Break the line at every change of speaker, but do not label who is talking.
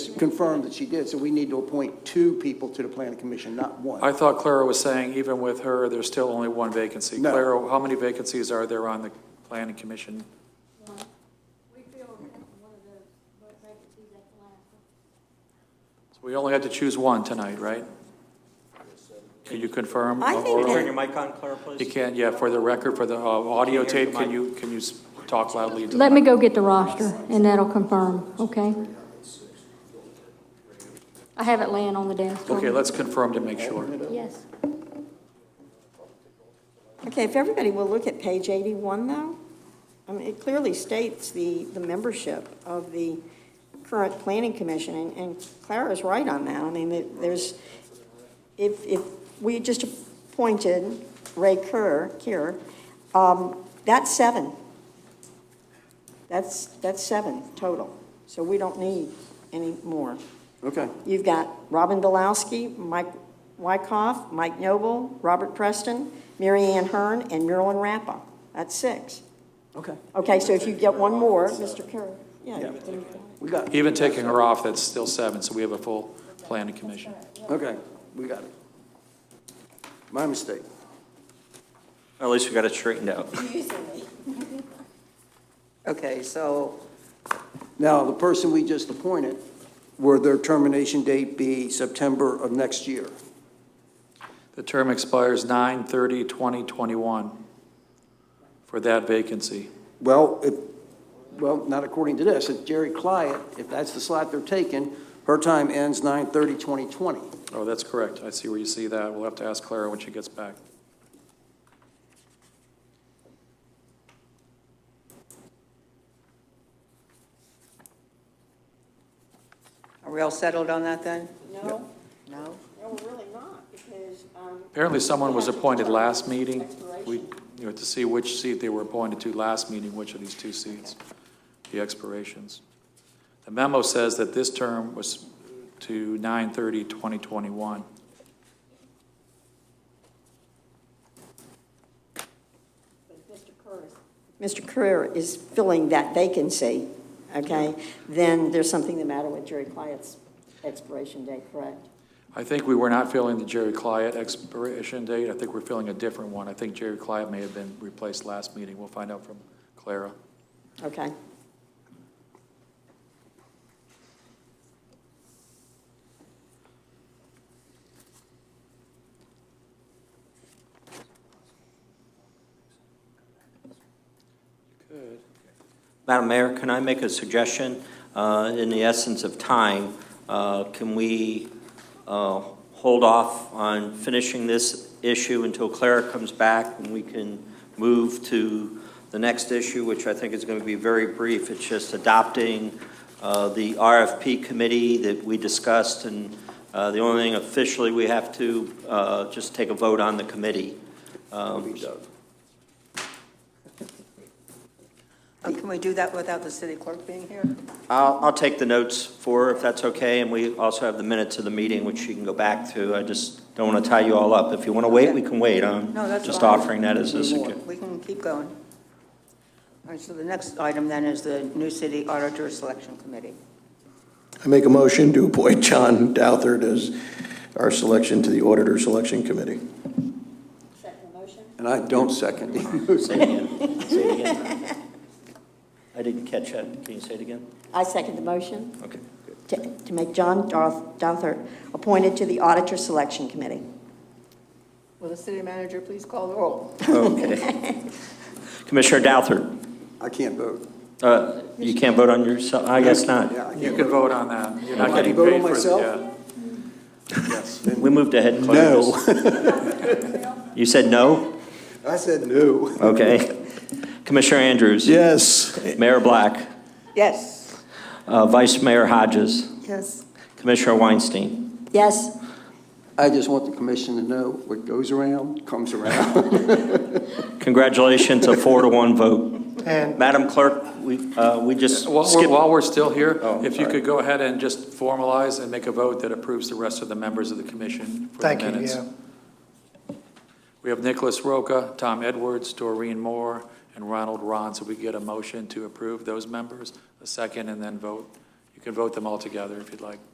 confirmed that she did, so we need to appoint two people to the planning commission, not
I
one.
thought Clara was saying even with her, there's still only one vacancy.
No.
Clara, how many vacancies are there on the planning commission?
We filled one of those vacancies at the last.
So We only had to choose one tonight, right? Can you confirm?
I think
Laura?
that-
Turn your mic on, Clara,
You
please.
can, yeah, for the record, for the uh, audio
Can't hear
tape,
the
can
mic.
you, can you s- talk loudly? into the
Let me
mic?
go get the roster, and that'll confirm, okay? I have it laying on the desk.
Okay, let's confirm to make sure.
Yes.
Okay, if everybody will look at page 81, though, I mean, it clearly states the, the membership of the current planning commission, and- and Clara's right on that. I mean, it- there's, if, if we just appointed Ray Kerr, Kier, um, that's seven. That's, that's seven total, so we don't need any more.
Okay,
You've got Robin Bilowski, Mike Wykoff, Mike Noble, Robert Preston, Mary Ann Hearn, and Marilyn Rappa. That's six.
okay.
Okay, so if you get one more, Mr. Kerr, yeah.
We got it,
Even taking her off, that's still seven, so we have a full planning commission.
okay, we got it. My mistake.
At least we got it straightened out.
Okay, so,
Now, the person we just appointed, will their termination date be September of next year?
The term expires 9/30/2021 for that vacancy.
Well, if, well, not according to this, if Jerry Clyott, if that's the slot they're taking, her time ends 9/30/2020.
Oh, that's correct. I see where you see that. We'll have to ask Clara when she gets back.
are we all settled on that then?
No,
No?
no, really not, because, um.
Apparently, someone was appointed last meeting. We, you know, to see which seat they were appointed to last meeting, which of these two seats, the expirations. The memo says that this term was to 9/30/2021.
Mr. Kerr is filling that vacancy, okay? Then there's something the matter with Jerry Clyatt's expiration date, correct?
I think we were not filling the Jerry Clyott expiration date. I think we're filling a different one. I think Jerry Clyott may have been replaced last meeting. We'll find out from Clara.
Okay.
Madam Mayor, can I make a suggestion? Uh, In the essence of time, uh, can we uh, hold off on finishing this issue until Clara comes back and we can move to the next issue, which I think is going to be very brief. It's just adopting uh, the RFP committee that we discussed, and uh, the only thing officially, we have to uh, just take a vote on the committee. Um,
Uh, Can we do that without the city clerk being here?
I'll, I'll take the notes for her if that's okay, and we also have the minutes of the meeting, which you can go back to. I just don't want to tie you all up. If you want to wait, we can wait. I'm
No, that's
just
fine.
offering that as a suggestion.
We can keep going. All right, so the next item then is the new city auditor selection committee.
I make a motion to appoint John Douthert as our selection to the Auditor Selection Committee.
Second motion?
And I don't second.
Say it again. Say it again. I didn't catch that. Can you say it again?
I second the motion.
Okay.
to to make John Doth- Dothert appointed to the Auditor Selection Committee.
Will the city manager please call the roll?
Okay. Commissioner Douthat,
I can't vote.
uh, you can't vote on yourself? I guess
Yeah,
not.
I
You
can't
can
vote.
vote on that. You're not
I can
getting
vote on
paid for uh,
myself?
it. Yes.
We moved ahead. Clara,
No.
just- You said no?
I said no.
Okay. Commissioner Andrews?
Yes.
Mayor Black?
Yes.
Uh, Vice Mayor Hodges?
Yes.
Commissioner Weinstein.
Yes,
I just want the commission to know what goes around, comes around.
Congratulations, a four to one vote. Madam Clerk, we, uh, we just
While we're,
skipped.
while we're still here,
Oh,
if you
sorry.
could go ahead and just formalize and make a vote that approves the rest of the members of the commission for the
Thank you,
minutes.
yeah.
We have Nicholas Roca, Tom Edwards, Doreen Moore, and Ronald Ron, so we get a motion to approve those members, a second, and then vote. You can vote them all together if you'd like.